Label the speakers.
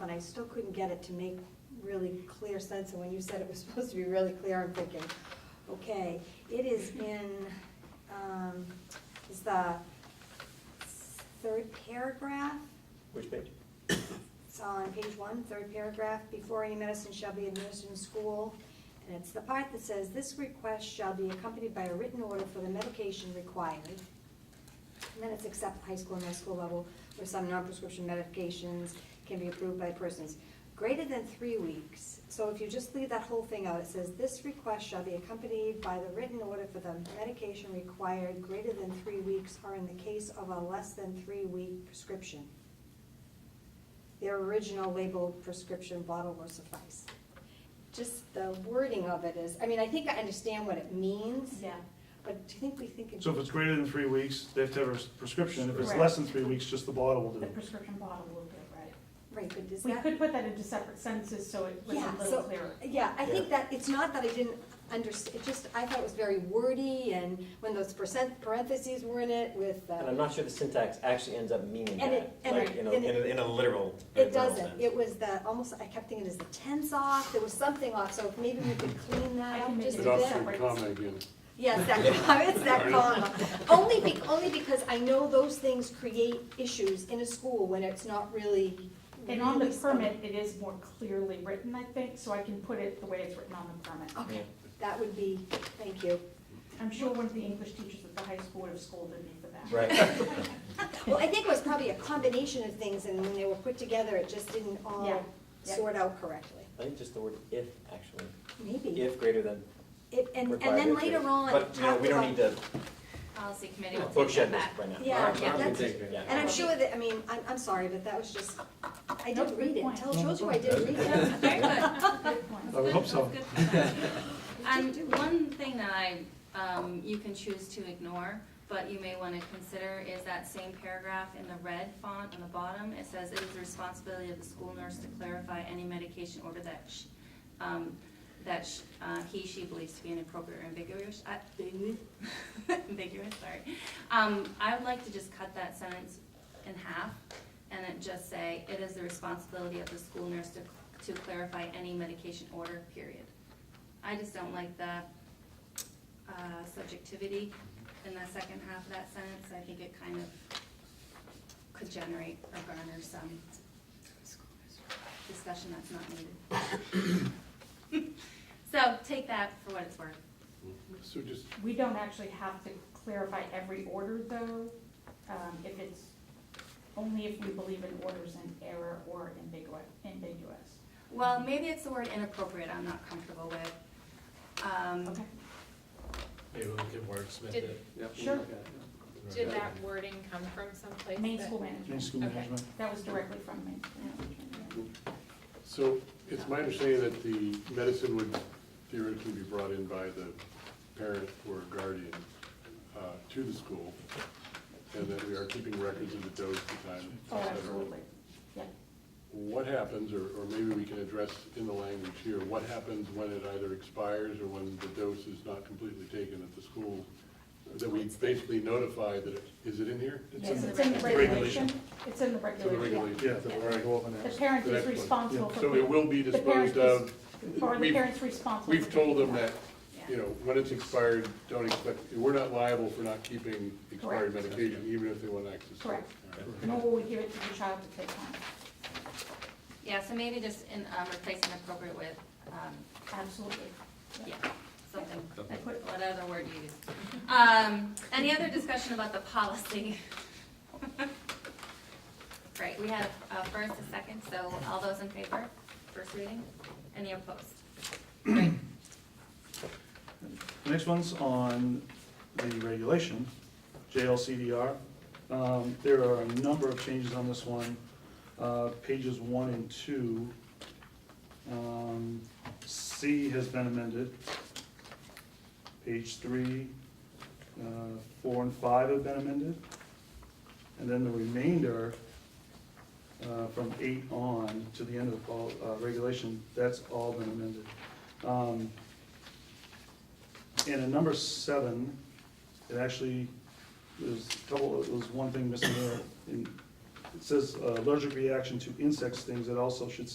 Speaker 1: still couldn't get it to make really clear sense, and when you said it was supposed to be really clear, I'm thinking, okay, it is in, um, it's the third paragraph,
Speaker 2: Which page?
Speaker 1: it's on page one, third paragraph, before any medicine shall be administered in school. And it's the part that says, this request shall be accompanied by a written order for the medication required. And then it's except at high school and middle school level, where some non-prescription medications can be approved by persons greater than three weeks. So if you just leave that whole thing out, it says, this request shall be accompanied by the written order for the medication required greater than three weeks, or in the case of a less than three-week prescription. Their original labeled prescription bottle will suffice. Just the wording of it is, I mean, I think I understand what it means.
Speaker 3: Yeah.
Speaker 1: But do you think we think it's?
Speaker 4: So if it's greater than three weeks, they have to have a prescription. If it's
Speaker 3: Correct.
Speaker 4: less than three weeks, just the bottle will do
Speaker 3: The
Speaker 4: it.
Speaker 3: prescription bottle will do it, right?
Speaker 1: Right, but does
Speaker 3: We
Speaker 1: that?
Speaker 3: could put that into separate sentences so it was
Speaker 1: Yeah,
Speaker 3: a little
Speaker 1: so-
Speaker 3: clearer.
Speaker 1: Yeah, I think
Speaker 2: Yeah.
Speaker 1: that, it's not that I didn't understand, it just, I thought it was very wordy, and when those percent parentheses were in it with, uh,
Speaker 2: And I'm not sure the syntax actually ends up meaning
Speaker 1: And it-
Speaker 2: that,
Speaker 1: and
Speaker 2: like,
Speaker 1: it-
Speaker 2: you know,
Speaker 1: and
Speaker 2: in
Speaker 1: it-
Speaker 2: a, in a literal, in a
Speaker 1: it
Speaker 2: literal
Speaker 1: doesn't.
Speaker 2: sense.
Speaker 1: It was the, almost, I kept thinking, is the tense off? There was something off, so if maybe we could clean
Speaker 3: I
Speaker 1: that
Speaker 3: can
Speaker 1: up
Speaker 3: make
Speaker 1: just a
Speaker 3: it
Speaker 5: It
Speaker 1: bit.
Speaker 3: also
Speaker 5: also comma again.
Speaker 1: Yes, that, comma, it's that comma. Only be, only because I know those things create issues in a school when it's not really.
Speaker 3: And on the
Speaker 1: really spelled.
Speaker 3: permit, it is more clearly written, I think, so I can put it the way it's written on the permit.
Speaker 1: Okay, that would be, thank you.
Speaker 3: I'm sure one of the English teachers at the high school would have scolded me for that.
Speaker 2: Right,
Speaker 1: Well, I think it was probably a combination of things, and when they were put together, it just didn't
Speaker 3: Yeah,
Speaker 1: all
Speaker 3: yeah.
Speaker 1: sort out correctly.
Speaker 2: I think just the word if, actually,
Speaker 1: Maybe.
Speaker 2: if greater than
Speaker 1: It- And, and
Speaker 2: required.
Speaker 1: then
Speaker 2: is greater.
Speaker 1: later on, it
Speaker 2: But, you know,
Speaker 1: talked
Speaker 2: we don't
Speaker 1: about,
Speaker 2: need to
Speaker 6: Policy committee will take
Speaker 2: bookshed
Speaker 6: that
Speaker 2: this
Speaker 6: back.
Speaker 2: right now.
Speaker 1: Yeah,
Speaker 6: yeah,
Speaker 1: that's-
Speaker 2: Yeah.
Speaker 1: and I'm sure that, I mean, I'm, I'm sorry, but that was just, I
Speaker 3: No,
Speaker 1: did
Speaker 3: good
Speaker 1: read it.
Speaker 3: point.
Speaker 1: Tell, told you I did read
Speaker 6: That's
Speaker 1: it.
Speaker 6: Very good.
Speaker 3: Good point.
Speaker 4: I would hope so.
Speaker 6: That's good feedback.
Speaker 3: Um,
Speaker 6: And one thing that I, um, you can choose to ignore, but you may want to consider is that same paragraph in the red font on the bottom. It says it is the responsibility of the school nurse to clarify any medication order that sh um, that sh uh, he, she believes to be inappropriate or ambiguous, uh, ambiguous, sorry. Um, I would like to just cut that sentence in half and then just say, it is the responsibility of the school nurse to, to clarify any medication order, period. I just don't like the, uh, subjectivity in the second half of that sentence. I think it kind of could generate or garner some discussion that's not needed. So take that for what it's worth.
Speaker 5: So just,
Speaker 3: We don't actually have to clarify every order though, um, if it's, only if we believe an order's in error or ambiguous, ambiguous.
Speaker 6: Well, maybe it's the word inappropriate I'm not comfortable with. Um,
Speaker 3: Okay,
Speaker 7: Maybe we could wordsmith
Speaker 8: Did-
Speaker 7: it.
Speaker 3: sure.
Speaker 8: Did that wording come from someplace?
Speaker 3: Main
Speaker 8: that-
Speaker 3: school
Speaker 4: Main
Speaker 3: management,
Speaker 4: school
Speaker 8: Okay.
Speaker 4: management.
Speaker 3: that was directly from main school management. yeah.
Speaker 5: so it's my understanding that the medicine would theoretically be brought in by the parent or guardian uh, to the school, and that we are keeping records of the dose, the time,
Speaker 3: Oh,
Speaker 5: et cetera.
Speaker 3: absolutely, yeah.
Speaker 5: What happens, or, or maybe we can address in the language here, what happens when it either expires or when the dose is not completely taken at the school? That we basically notify that, it- is it in here?
Speaker 3: Yes, it's in the
Speaker 5: regulation.
Speaker 3: regulation, it's in the
Speaker 5: So the
Speaker 3: regulation,
Speaker 5: regulation.
Speaker 4: Yeah, that we're all over
Speaker 3: yeah.
Speaker 4: now.
Speaker 3: The parent
Speaker 5: The next
Speaker 3: is
Speaker 5: one.
Speaker 3: responsible for.
Speaker 5: So it will be
Speaker 3: the parent
Speaker 5: disposed of,
Speaker 3: is- Or the
Speaker 5: We've-
Speaker 3: parent's responsible.
Speaker 5: we've
Speaker 3: for
Speaker 5: told them
Speaker 3: picking it
Speaker 5: that,
Speaker 3: up.
Speaker 5: you know, when it's expired, don't expect, we're not liable for not keeping expired
Speaker 3: Correct.
Speaker 5: medication, even if they want access to it.
Speaker 3: Correct.
Speaker 5: All right.
Speaker 3: Nor will we give it to the child to take home,
Speaker 6: Yeah, so maybe just in, um, replace inappropriate with, um,
Speaker 3: absolutely.
Speaker 6: yeah, something,
Speaker 3: I put-
Speaker 6: what other word you use. Um, any other discussion about the policy? Great, we have a first, a second, so all those in favor, first reading, any opposed? Great.
Speaker 4: The next one's on the regulation, JLCDR. Um, There are a number of changes on this one, Uh, pages one and two. um, C has been amended. Page three, uh, four and five have been amended. And then the remainder, uh, from eight on to the end of the pol- uh, regulation, that's all been amended. Um, and in number seven, it actually, there's a couple, there's one thing missing there. In- It says uh, allergic reaction to insect stings, it also should